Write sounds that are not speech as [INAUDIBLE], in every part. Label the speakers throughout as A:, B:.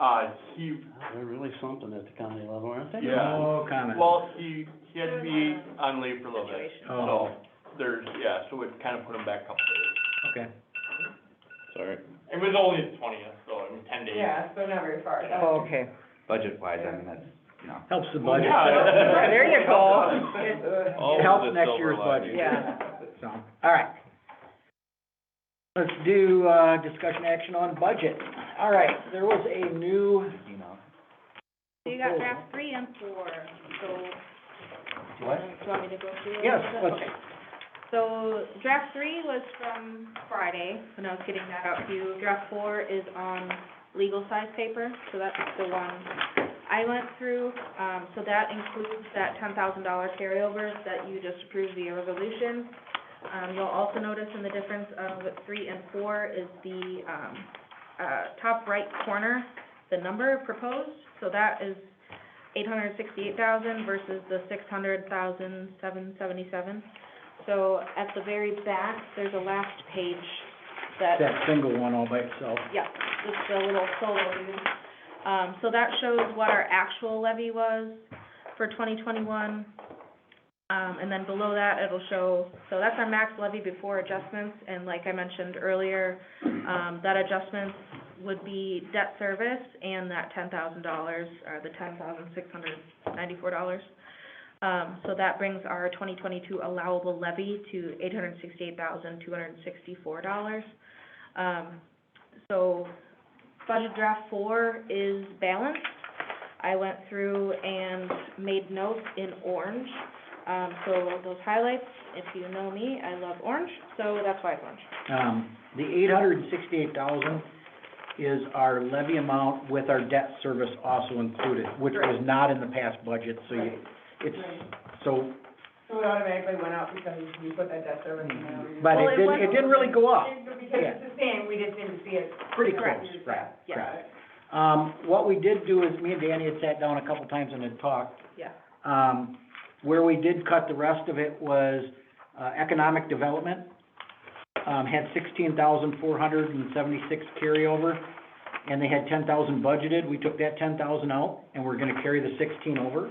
A: Uh, he,
B: They're really something at the county level, aren't they?
A: Yeah.
C: Oh, kinda.
A: well, he, he had to be on leave for a little bit, so
C: Oh,
A: there's, yeah, so it kind of put him back a couple days.
C: okay.
B: Sorry.
A: It was only the twentieth, so I mean, ten days.
D: Yeah, so not very far.
E: Oh, okay.
F: budget wise, I mean, that's, you know,
C: Helps the budget.
D: [LAUGHS]
A: Yeah.
E: There you go.
C: It helps next year's budget.
E: Yeah.
C: So, all right. Let's do, uh, discussion action on budget. All right, there was a new,
F: you know.
G: You got draft three and four, so.
F: What?
G: Do you want me to go through? it?
C: yes, let's,
G: Okay. So draft three was from Friday, when I was getting that out to you. Draft four is on legal size paper, so that's the one I went through. Um, so that includes that ten thousand dollar carryover that you just approved via resolution. Um, you'll also notice in the difference of three and four is the, um, uh, top right corner, the number proposed. So that is eight hundred sixty-eight thousand versus the six hundred thousand seven seventy-seven. So at the very back, there's a last page that
C: that single one all by itself.
G: yeah, just a little solo view. Um, so that shows what our actual levy was for twenty twenty-one. Um, and then below that, it'll show, so that's our max levy before adjustments, and like I mentioned earlier, um, that adjustments would be debt service and that ten thousand dollars, or the ten thousand six hundred ninety-four dollars. Um, so that brings our twenty twenty-two allowable levy to eight hundred sixty-eight thousand two hundred sixty-four dollars. Um, so budget draft four is balanced. I went through and made notes in orange. Um, so those highlights, if you know me, I love orange, so that's why it's orange.
C: Um, the eight hundred and sixty-eight thousand is our levy amount with our debt service also included, which was not in the past budget, so you, it's, so,
D: So it automatically went out because we put that debt service in there.
C: Mm-hmm. but
G: Well,
C: it
G: it
C: didn't, it
G: wasn't-
C: didn't really go up.
D: Because it's the same, we just didn't see it.
C: Pretty
G: Correct.
C: close, right,
G: Yeah.
C: correct. Um, what we did do is, me and Danny had sat down a couple times and had talked.
G: Yeah.
C: Um, where we did cut the rest of it was, uh, economic development, um, had sixteen thousand four hundred and seventy-six carryover, and they had ten thousand budgeted, we took that ten thousand out, and we're gonna carry the sixteen over.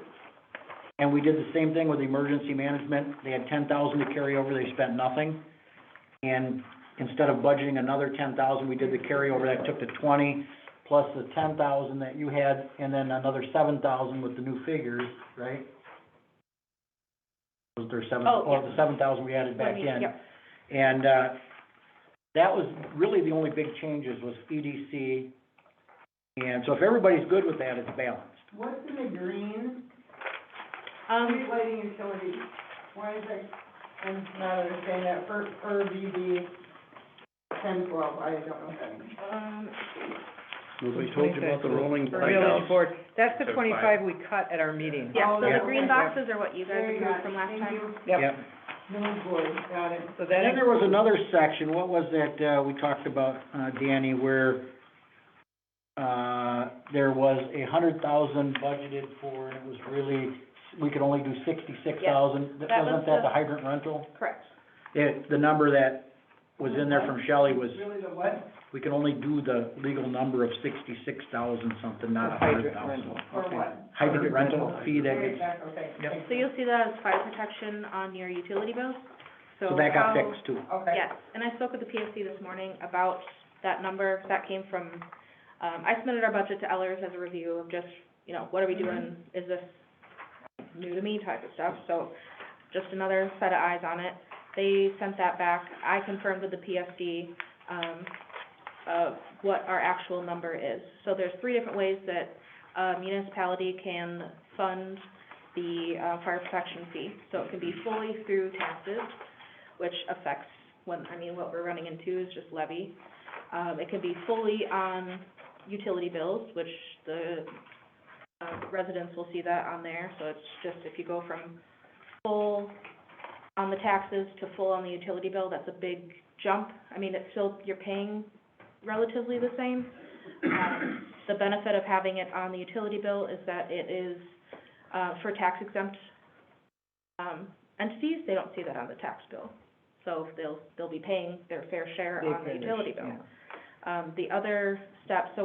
C: And we did the same thing with emergency management, they had ten thousand to carry over, they spent nothing. And instead of budgeting another ten thousand, we did the carryover, that took to twenty, plus the ten thousand that you had, and then another seven thousand with the new figures, right? Was there seven,
G: Oh,
C: oh, the seven thousand we added back in.
G: Yep.
C: And, uh, that was really the only big changes was EDC. And so if everybody's good with that, it's balanced.
D: What's in the green?
G: Um,
D: Street lighting utilities. Why is that, I'm not understanding that, for, for VB ten twelve, I don't know what that means.
G: um,
B: Nobody told you about the rolling
E: Village
B: playhouse.
E: board, that's the
F: Took
E: twenty-five we cut at our meeting.
G: yeah, so
C: Yeah.
G: the green boxes are what you guys
D: There you
G: approved
D: go.
G: from last
D: Thank
G: time.
D: you.
E: Yep.
D: Village board, got it.
E: So that,
C: Then there was another section, what was that, uh, we talked about, uh, Danny, where, uh, there was a hundred thousand budgeted for, and it was really, we could only do sixty-six thousand.
G: that was
C: Wasn't that the
G: the-
C: hydrant rental?
G: Correct.
C: It, the number that was in there from Shelley was
D: Really the what?
C: We can only do the legal number of sixty-six thousand something,
E: the
C: not a
E: hydrant
C: hundred thousand.
E: rental,
D: Or
E: okay.
D: what?
C: Hydrant
E: Hydrant
C: rental
E: rental.
C: fee that
D: Right
C: gets,
D: back, okay.
E: Yep.
D: thank
G: So you'll see that as fire protection on your utility bills, so
C: so that got
G: how-
C: fixed too.
D: Okay.
G: Yes, and I spoke with the PSC this morning about that number, that came from, um, I submitted our budget to Ellers as a review of just, you know, what are we doing? Is this new to me type of stuff, so just another set of eyes on it. They sent that back, I confirmed with the PSC, um, of what our actual number is. So there's three different ways that a municipality can fund the, uh, fire protection fee. So it can be fully through taxes, which affects when, I mean, what we're running into is just levy. Um, it can be fully on utility bills, which the, uh, residents will see that on there, so it's just if you go from full on the taxes to full on the utility bill, that's a big jump. I mean, it's still, you're paying relatively the same. Um, the benefit of having it on the utility bill is that it is, uh, for tax exempt, um, entities, they don't see that on the tax bill. So they'll, they'll be paying their fair share on the utility bill. Um, the other step, so